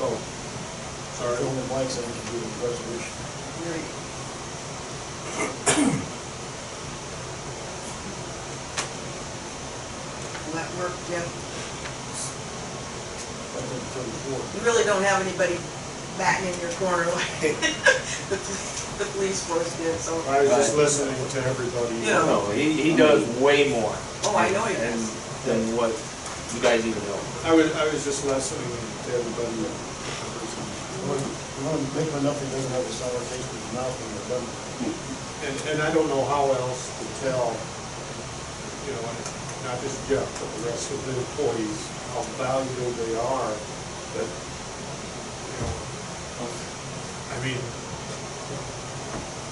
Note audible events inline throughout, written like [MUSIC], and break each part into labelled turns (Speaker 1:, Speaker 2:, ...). Speaker 1: Oh,
Speaker 2: Sorry.
Speaker 1: Fill in the blanks, I can do the resolution.
Speaker 3: Will that work, Jim?
Speaker 1: That's in thirty-four.
Speaker 3: You really don't have anybody batting in your corner like [LAUGHS] the, the police force did, so.
Speaker 2: I was just listening to everybody.
Speaker 3: Yeah.
Speaker 4: No, he, he does way more.
Speaker 3: Oh, I know he
Speaker 4: And-
Speaker 3: does.
Speaker 4: Than what you guys even know.
Speaker 2: I was, I was just listening to everybody.
Speaker 1: One, one, big one, nothing doesn't have a sour taste in his mouth when you're done.
Speaker 2: And, and I don't know how else to tell, you know, and not just Jeff, but the rest of the employees, how valuable they are, that, you know, I mean,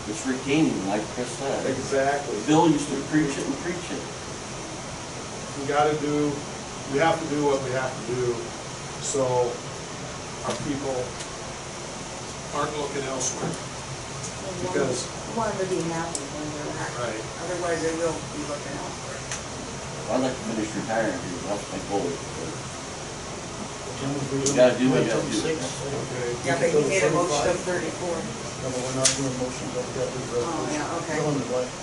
Speaker 5: It's retaining, like Chris said.
Speaker 2: exactly.
Speaker 5: Bill used to preach it and preach it.
Speaker 2: we gotta do, we have to do what we have to do, so our people aren't looking elsewhere. Because-
Speaker 3: Want to be happy when they're not.
Speaker 2: Right.
Speaker 3: Otherwise, they will be looking out for it.
Speaker 5: I'd like to finish retiring here, that's my goal. but
Speaker 1: Jim was reading.
Speaker 5: You gotta do what
Speaker 1: went
Speaker 5: you
Speaker 1: 36,
Speaker 5: gotta do.
Speaker 2: Okay.
Speaker 3: Yeah, but he made a motion of
Speaker 1: 35.
Speaker 3: thirty-four.
Speaker 1: No, but we're not doing motions, I've got the resolution.
Speaker 3: yeah, okay.
Speaker 1: Fill in the blanks.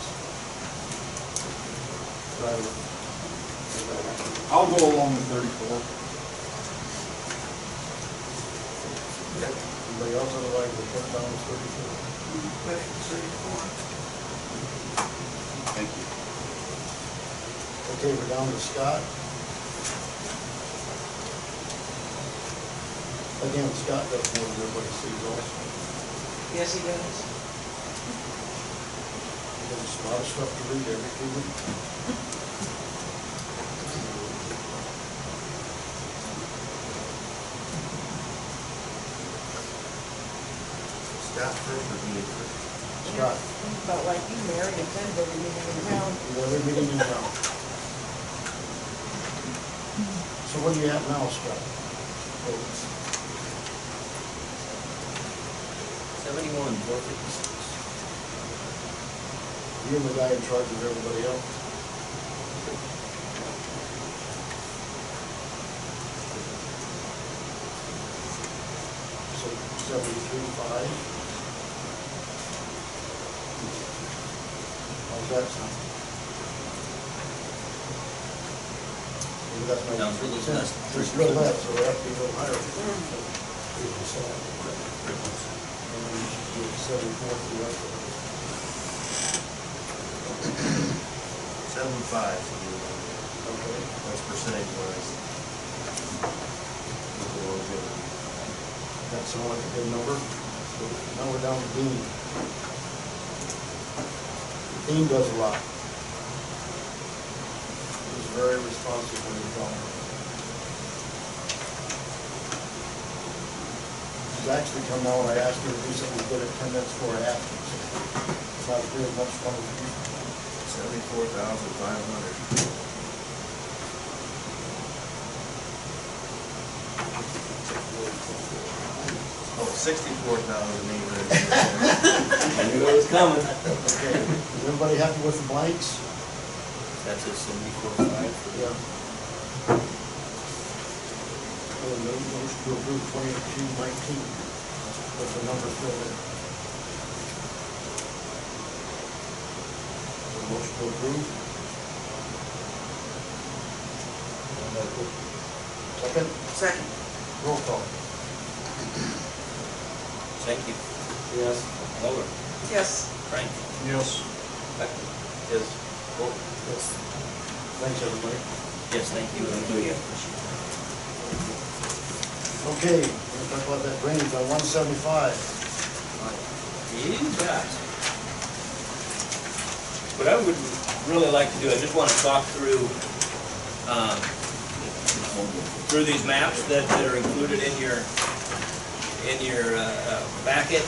Speaker 6: I'll go along with thirty-four.
Speaker 1: Anybody else on the line will put down as thirty-four?
Speaker 3: But thirty-four.
Speaker 5: Thank you.
Speaker 1: Okay, we're down to Scott. Again, Scott does more than everybody sees also.
Speaker 3: Yes, he does.
Speaker 1: There's a lot of stuff to read every two weeks.
Speaker 6: Staff preferred
Speaker 1: Scott,
Speaker 3: But like you, Mary, attend every meeting in town.
Speaker 1: you have every meeting in town. So what do you have now, Scott? Votes.
Speaker 4: Seventy-one, four fifty-six.
Speaker 1: You and the guy in charge of everybody else. So seventy-three, five. How's that sound? Maybe that's my.
Speaker 4: Sounds real less.
Speaker 1: It's real less, so we have to be a little higher.
Speaker 3: Mm-hmm.
Speaker 1: And then you should do seventy-four, three,
Speaker 6: Seven five, so
Speaker 1: okay.
Speaker 6: that's percentage wise.
Speaker 1: That sound like a good number? So Now we're down to Dean. Dean does a lot. He's very responsive when he's gone. He's actually come out, I asked him to do something good at ten minutes before I asked him. It's not very much fun with you.
Speaker 6: Seventy-four thousand five hundred. Oh, sixty-four thousand eight hundred.
Speaker 4: I knew it was coming.
Speaker 1: Okay, is everybody happy with the blanks?
Speaker 4: That's a seventy-four, five.
Speaker 1: Yeah. Well, no, motion to approve twenty-two nineteen, with the number filled in. The Motion to approve. And I put- Second,
Speaker 3: Second.
Speaker 1: roll call.
Speaker 4: Thank you.
Speaker 1: Yes.
Speaker 4: Lower.
Speaker 3: Yes.
Speaker 4: Frank.
Speaker 2: Yes.
Speaker 4: Becky. Yes. Vote.
Speaker 1: Yes. Thanks, everybody.
Speaker 4: Yes, thank you.
Speaker 1: Okay, we're gonna talk about that range on one seventy-five.
Speaker 4: You bet. What I would really like to do, I just want to talk through, um, through these maps that, that are included in your, in your, uh, uh, packet.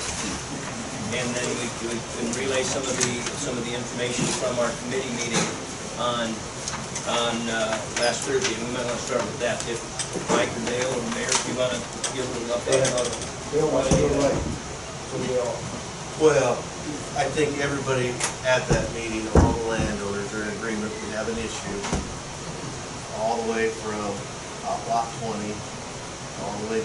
Speaker 4: And then we, we can relay some of the, some of the information from our committee meeting on, on, uh, last Thursday. And we might want to start with that. If Mike or Dale or Mayor, if you want to give a little update on.
Speaker 1: Bill, why do you like, so we all,
Speaker 6: Well, I think everybody at that meeting, all the landowners are in agreement, we have an issue. All the way from uh, lot twenty, all the way